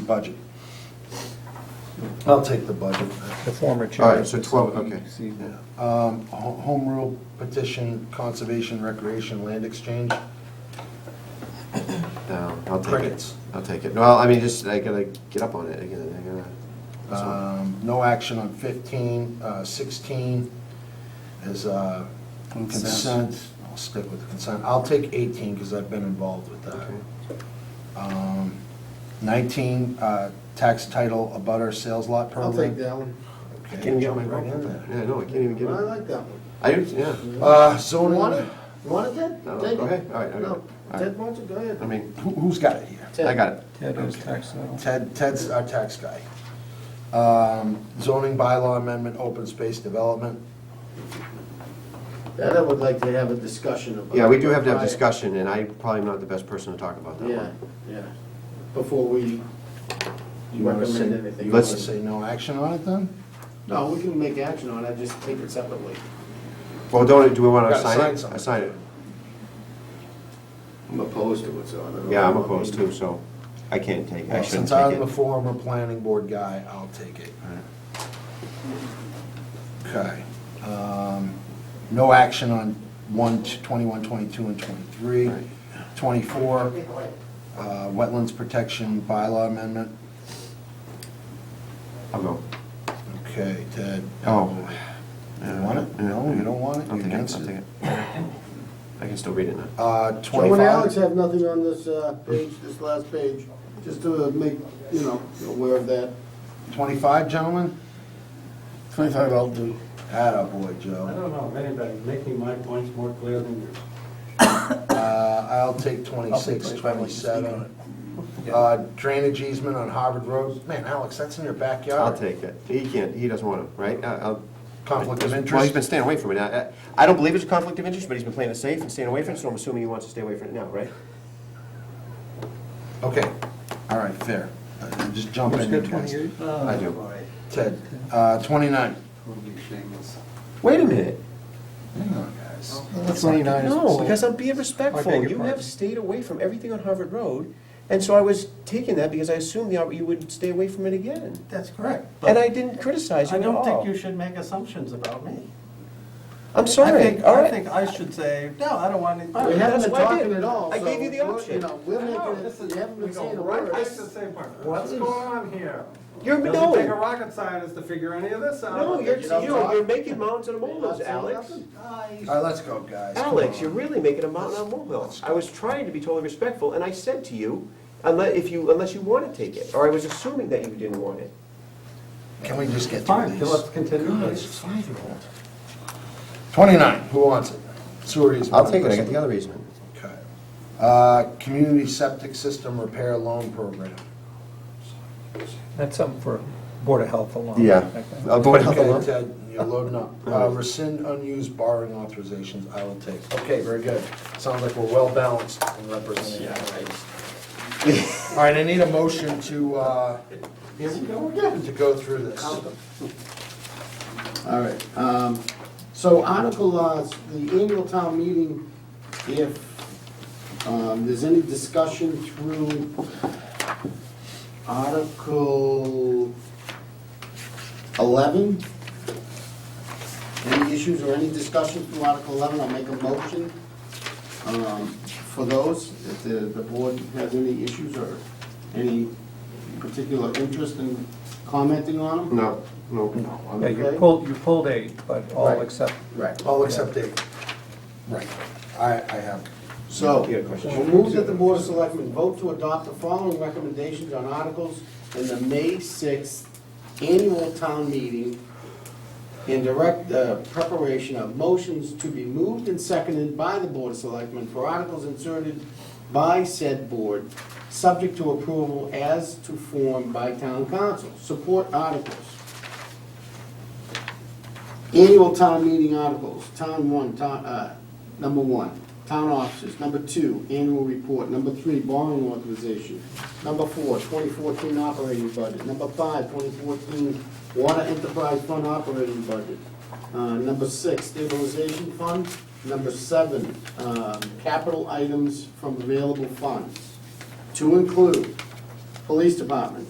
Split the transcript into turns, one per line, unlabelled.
budget. I'll take the budget.
The former chair.
All right, so 12, okay.
See,
Yeah. Um, ho- Home rule petition, conservation, recreation, land exchange.
No, I'll take it.
Crickets.
I'll take it. Well, I mean, just, I gotta get up on it again, I gotta. that's all.
Um, No action on 15, uh, 16 is uh, consent. I'll stick with the consent. I'll take 18 because I've been involved with that.
Okay.
Um, 19, uh, tax title abutter sales lot
I'll
program.
take that one.
Okay,
Can't even get my
jump right in there.
Yeah, no, I can't even get
I
it.
like that one.
I do, yeah.
Uh,
You want it?
zoning,
You want it, Ted?
No,
Take
okay,
it.
all right, okay.
No,
All right.
Ted wants it, go ahead.
I mean,
who- who's got it here?
Ted.
I got it.
Ted is tax title.
Ted, Ted's our tax guy. Um, Zoning bylaw amendment, open space development.
That I would like to have a discussion about.
Yeah, we do have to have
Right.
discussion, and I probably am not the best person to talk about that
Yeah,
one.
yeah, before we
You wanna say-
recommend anything.
You want to say no action on it then?
No, we can make action on it, just take it separately.
Well, don't, do we want to
Gotta sign
sign it? I
something.
sign it.
I'm opposed to it, so I don't know.
Yeah, I'm opposed too, so I can't take, I
Well,
shouldn't
Since I'm
take
the
it.
former planning board guy, I'll take it. Okay. Um, No action on 1, 21, 22, and 23.
Right.
24, uh, wetlands protection bylaw amendment.
I'll go.
Okay, Ted.
Oh.
You want it?
Yeah.
No, you don't want it?
I'll
You're
take it, I'll
against
take
it?
it. I can still read it now.
Uh,
Joe and
25,
Alex have nothing on this uh, page, this last page, just to make, you know, aware of that.
25, gentlemen?
Twenty-five I'll do.
Attaboy,
I
Joe.
don't know if anybody's making my points more clear than yours.
Uh, I'll take 26, 27. Uh, Drainage easement on Harvard Road. Man, Alex, that's in your backyard.
I'll take it. He can't, he doesn't want to, right? I- I'll.
Conflict of
Well, he's
interest.
been staying away from it. I, I- I don't believe it's a conflict of interest, but he's been playing it safe and staying away from it, so I'm assuming he wants to stay away from it now, right?
Okay, all right, fair. Uh, Just jump in. here, guys.
I do.
Ted, uh, 29.
Wait a minute.
Hang on, guys.
Twenty-nine is.
No, because I'm being
I
respectful.
beg your
You
pardon.
have stayed away from everything on Harvard Road, and so I was taking that because I assumed the- you would stay away from it again.
That's correct.
And
But
I didn't criticize you
I
at
don't think
all.
you should make assumptions about me.
I'm
I
sorry,
think,
all
I
right.
think I should say, no, I don't want
We
to.
haven't
That's
been
what I
talking
did.
at all,
I
so,
gave you the
we're-
option.
You know, we're making, you haven't been saying a word.
same part. What's going on here?
You're,
Doesn't take a
no,
rocket scientist to figure any of this out.
no, you're,
You don't
you're
talk.
you're making mountains out of molehills,
Not saying
Alex.
nothing.
All right, let's go, guys. Come
Alex,
on.
you're really making a mountain out of molehill. I was trying to be totally respectful, and I said to you, unless, if you, unless you want to take it, or I was assuming that you didn't want it.
Can we just get through
Fine,
these?
so let's continue.
God, it's a five-year-old. 29, who wants it? Sewer easement.
other reason.
Okay. Uh, Community septic system repair loan program.
That's something for Board of Health alone.
Yeah.
I think.
Uh, Board of Health
Okay,
alone.
Ted, you're loading up. Uh, Rescind unused borrowing authorizations, I will take. Okay, very good. Sounds like we're well balanced and representing. All right, I need a motion to, uh,
Here we go again.
to go through this.
All right, um, so article, uh, the annual town meeting, if, um, there's any discussion through article eleven? Any issues or any discussion through article eleven, I'll make a motion, um, for those, if the, the board has any issues or any particular interest in commenting on them.
No, no.
Yeah, you pulled, you pulled eight, but all
Right.
except
Right.
All except Dave. Right. I, I have.
So,
You had a question?
we'll move that the Board of Selectmen vote to adopt the following recommendations on articles in the May 6th annual town meeting and direct the preparation of motions to be moved and seconded by the Board of Selectmen for articles inserted by said board, subject to approval as to form by town council. Support articles. Annual town meeting articles, town one, town, uh, number one, town offices, number two, annual report, number three, borrowing authorization, number four, 2014 operating budget, number five, 2014 water enterprise fund operating budget, uh, number six, stabilization fund, number seven, um, capital items from available funds, to include Police Department.